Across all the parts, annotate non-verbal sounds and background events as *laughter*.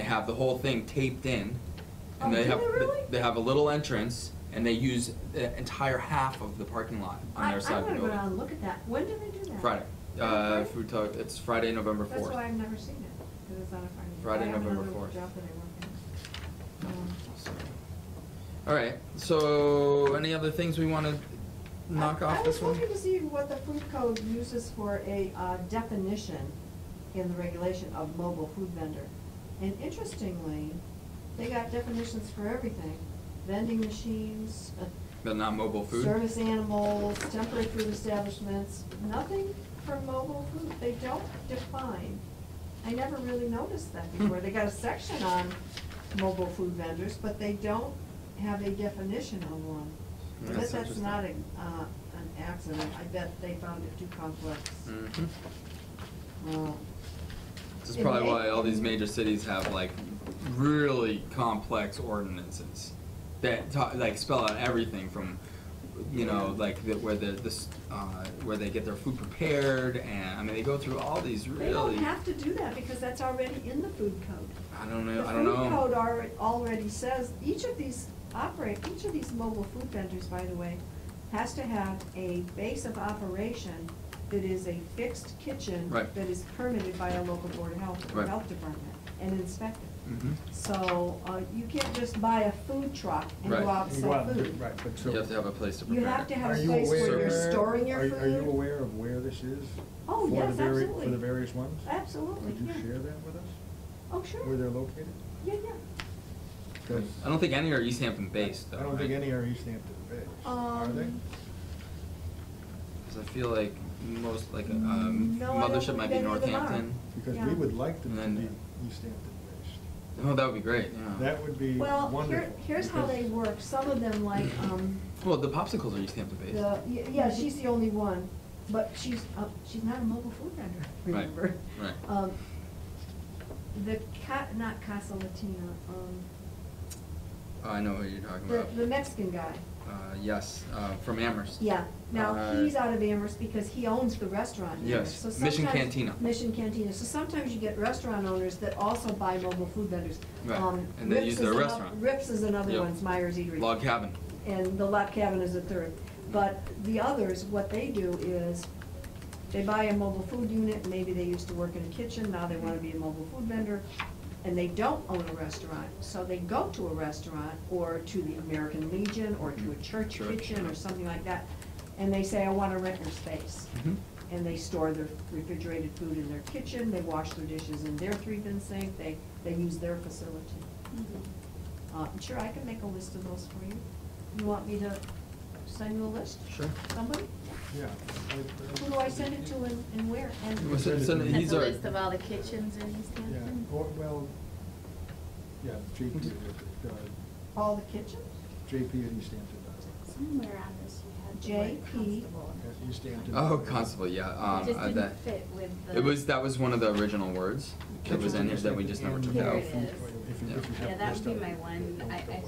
have the whole thing taped in, Oh, and they do have they really? they have a little entrance, and they use the entire half of the parking lot on I, their side I of the wanna go building. down and look at that. When do they do that? Friday, Is it uh, Friday? food talk. It's Friday, November fourth. That's why I've never seen it, because it's on a Friday. Friday, I have November another 4th. job that I work in. Um, All right. So, any other things we want to knock Um, I- off this one? I was looking to see what the food code uses for a uh, definition in the regulation of mobile food vendor. And interestingly, they got definitions for everything, vending machines, uh, But not mobile food. service animals, temporary food establishments, nothing for mobile food. They don't define. I never really noticed Hmm. that before. They got a section on mobile food vendors, but they don't have a definition of one. I bet Hmm. That's that's interesting. not a, uh, an accident. I bet they found it too complex. Mhm. Well, This is It probably may- why all these major cities have like really complex ordinances that ta like spell out everything from, you know, like the, where the this uh, where they get their food prepared and I mean they go through all these really. They don't have to do that because that's already in the food code. I don't know. I don't know. The food code alre- already says, each of these operate, each of these mobile food vendors, by the way, has to have a base of operation that is a fixed kitchen. Right. That is permitted by a local board of health, or Right. health department, and inspected. Mhm. So, uh, you can't just buy a food truck and Right. go out and You sell want- food. Right, but so. You have to have a place to prepare. You have to it. have a Are you place where aware- you're storing your are- food. Are you aware of where this is? Oh, For the yes, vari- absolutely. For the various ones? Absolutely, Would you yeah. share that with us, Oh, sure. where they're located? Yeah, yeah. 'Cause I don't think any are East Hampton based. Though, I don't think right? any are East Hampton based, are Um, they? Because I feel like most, like, um, Mm, No, I don't mothership might be think any of them are. Northampton. Because yeah. we would like them to And be then- East Hampton based. Oh, that would be great, yeah. That would be Well, here, wonderful, here's how because- they work. Some of them like, um, Well, the popsicles are East Hampton based. the, y- yeah, she's the only one, but she's, uh, she's not a mobile food vendor, *laughs* Right, remember? right. Um, the ca, not Casa Latina, um, Oh, I know who you're talking the, about. the Mexican guy. Uh, yes, uh, from Amherst. Yeah, now, Uh, he's out of Amherst because he owns the restaurant in Yes, Amherst. So Mission sometimes- Cantina. Mission Cantina, so sometimes you get restaurant owners that also buy mobile food vendors. Right, Um, and they Rips use is their ano- restaurant. Rips is another Yep. one, it's Myers Eatery. Log cabin. And the lot cabin is a third. But the others, what they do is, they buy a mobile food unit, maybe they used to work in a kitchen, now they wanna be a mobile food vendor, and they don't own a restaurant, so they go to a restaurant, or to the American Legion, or to a church Church. kitchen, or something like that, and they say, I wanna rent your space. Mhm. And they store their refrigerated food in their kitchen, they wash their dishes in their three-bin sink, they, they use their facility. Mm-hmm. Uh, sure, I can make a list of those for you. You want me to send you a list? Sure. Somebody? Yeah. Who do I send it to and, and where? And Well, send- send it- That's He's a our- list of all the kitchens in East Yeah, Hampton. or, well, yeah, JP, Mhm. uh, all the kitchens? JP and East Hampton. does. Somewhere on this you had the word JP. constable. Yeah, East Hampton. Oh, Constable, yeah, um, It just uh, that, didn't fit with the. it was, that was one of the original words that was in here that we just never took There out. it is. Yeah, that would be my one, I, I think.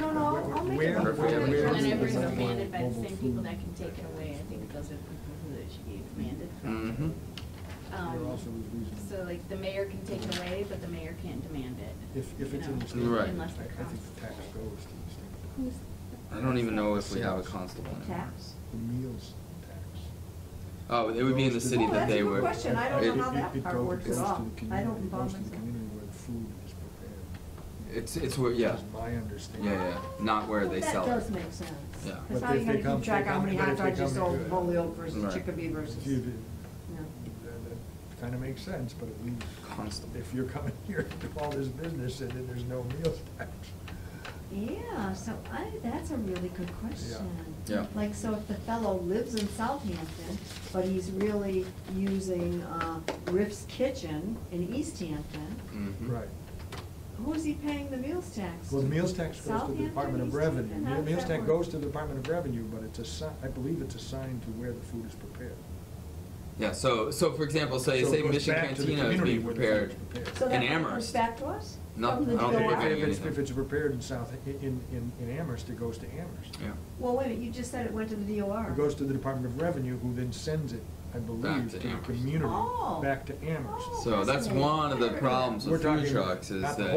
No, no, I'll- I'll make Where- it. up. where- I'll make where- it up. Whenever it's where- demanded by the same people that can take it away, I think those are the people who it should be demanded Mm-hmm. from. Um, There also was reason- So like the mayor can take it away, but the mayor can't demand it. If, if you it's in know, the state. Right. Unless I the I think the tax constable. goes to the state. Who's- I don't even know if we have a constable anymore. Tax? The meals tax. Oh, it would be in the Goes to city Oh, that that's a they good were. question. I don't it- know how It- that it- it part goes- works goes at to all. the community- I don't involve It goes to the myself. community where the food is prepared. It's, it's where, yeah, That's my understanding. yeah, yeah, not where Well, they sell it. That does make sense. Yeah. Cause But how are if you they gonna come- keep track they how come- many but hot if they dogs you come to sold do it- Holyoke versus Right. Chicopee versus? If you did- Yeah. That Kind of makes sense, but at least. Constable. If you're coming *laughs* here to do all this business and then there's no meals tax. Yeah, so I, that's a really good question. Yeah. Like, so if the fellow lives in Southampton, but he's really using, uh, Riff's Kitchen in East Hampton, Mhm. Right. who's he paying the meals tax Well, the to? meals tax goes to the Southampton, Department of East Revenue. Hampton? How The does meals that tax work? goes to the Department of Revenue, but it's assigned, I believe it's assigned to where the food is prepared. Yeah, so, so for example, say, So it say goes Mission back to the Cantina is community being where the prepared food's prepared. So in that comes Amherst. back to us? No, From the I don't think DOR? we're If paying it's, if anything. it's prepared in South, in, in, in Amherst, it goes to Amherst. Yeah. Well, wait a minute, you just said it went to the DOR. It goes to the Department of Revenue, who then sends it, I believe, to to the Amherst. community, Oh. back to Amherst. Oh. So that's one of the problems We're with food talking trucks is not the that